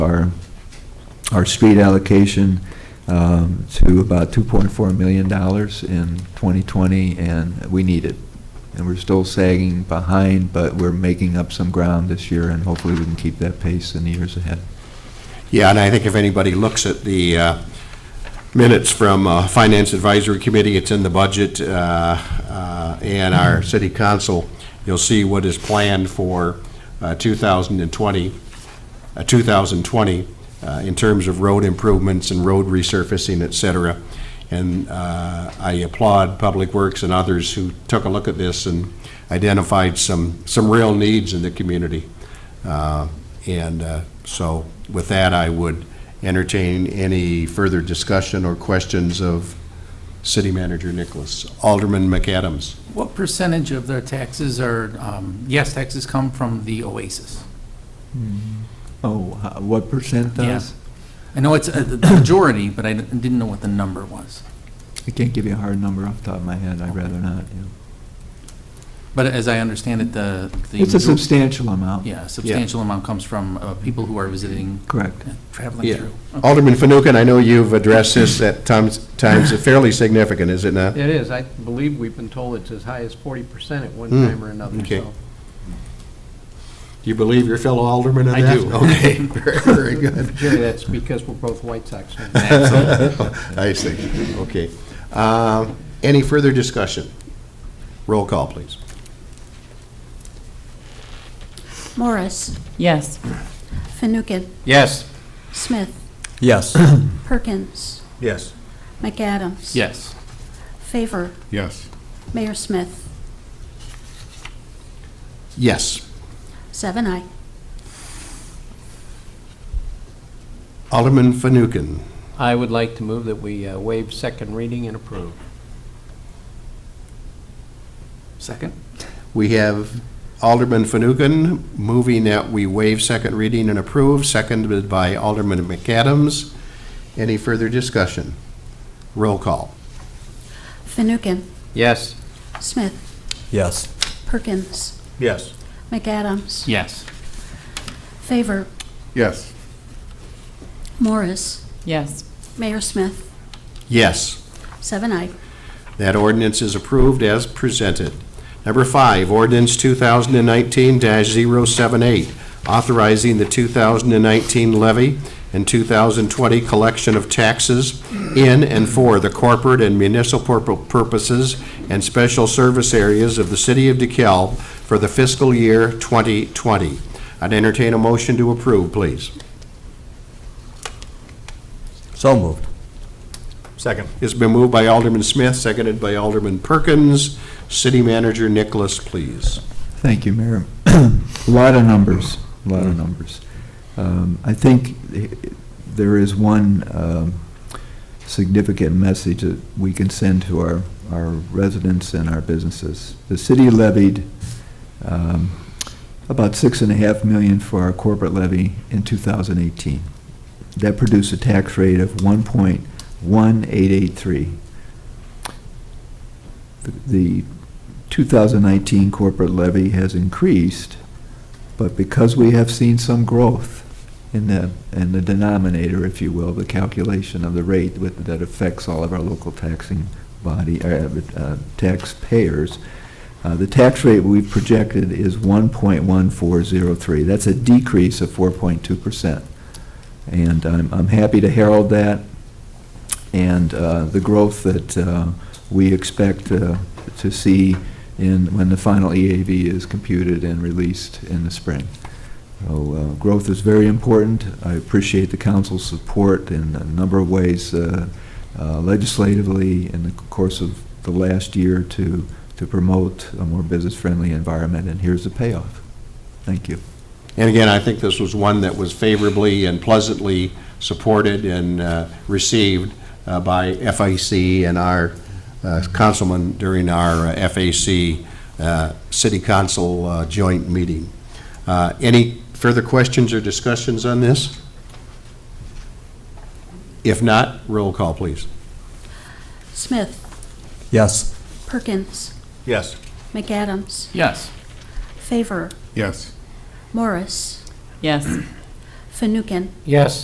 our, our street allocation um, to about $2.4 million in 2020, and we need it. And we're still sagging behind, but we're making up some ground this year, and hopefully we can keep that pace in the years ahead. Yeah, and I think if anybody looks at the uh, minutes from uh, Finance Advisory Committee, it's in the budget, uh, uh, and our city council, you'll see what is planned for uh, 2020, uh, 2020, uh, in terms of road improvements and road resurfacing, et cetera. And uh, I applaud Public Works and others who took a look at this and identified some, some real needs in the community. Uh, And uh, so with that, I would entertain any further discussion or questions of City Manager Nicholas. Alderman McAdams. What percentage of their taxes are, um, yes, taxes come from the Oasis? Oh, h- what percent does? I know it's uh, the majority, but I didn't know what the number was. I can't give you a hard number off the top of my head, I'd rather not. yeah. But as I understand it, the. the It's a substantial amount. Yeah, substantial amount comes from uh, people who are visiting, Correct. uh, traveling Yeah. through. Alderman Fanouken, I know you've addressed this at times, times fairly significant, is it not? It is. I believe we've been told it's as high as forty percent at one Hmm. time or another, Okay. so. Do you believe your fellow alderman in I that? do. Okay, very very good. Jerry, that's because we're both White Sox fans. I see, okay. Um, Any further discussion? Roll call, please. Morris, Yes. Fanouken, Yes. Smith, Yes. Perkins, Yes. McAdams. Yes. Favor, Yes. Mayor Smith, Yes. seven I. Alderman Fanouken. I would like to move that we uh, waive second reading and approve. Second? We have Alderman Fanouken moving that we waive second reading and approve, seconded by Alderman McAdams. Any further discussion? Roll call. Fanouken, Yes. Smith, Yes. Perkins, Yes. McAdams. Yes. Favor, Yes. Morris, Yes. Mayor Smith, Yes, seven I. that ordinance is approved as presented. Number five, ordinance 2019-078, authorizing the 2019 levy and 2020 collection of taxes in and for the corporate and municipal purpo- purposes and special service areas of the city of DeKalb for the fiscal year 2020. I'd entertain a motion to approve, please. So moved. Second. It's been moved by Alderman Smith, seconded by Alderman Perkins. City Manager Nicholas, please. Thank you, Mayor. A lot of numbers, a lot of numbers. Um, I think there is one um, significant message that we can send to our, our residents and our businesses. The city levied um, about six and a half million for our corporate levy in 2018. That produced a tax rate of 1.1883. The- The 2019 corporate levy has increased, but because we have seen some growth in the, in the denominator, if you will, the calculation of the rate with, that affects all of our local taxing body, uh, uh, taxpayers, uh, the tax rate we've projected is 1.1403. That's a decrease of 4.2%. And I'm, I'm happy to herald that, and uh, the growth that uh, we expect uh, to see in, when the final EAV is computed and released in the spring. So uh, growth is very important. I appreciate the council's support in a number of ways uh, uh, legislatively in the course of the last year to, to promote a more business-friendly environment, and here's the payoff. Thank you. And again, I think this was one that was favorably and pleasantly supported and uh, received uh, by FIC and our uh, councilman during our uh, FAC uh, City Council uh, joint meeting. Uh, Any further questions or discussions on this? If not, roll call, please. Smith, Yes. Perkins, Yes. McAdams. Yes. Favor, Yes. Morris, Yes. Fanouken, Yes.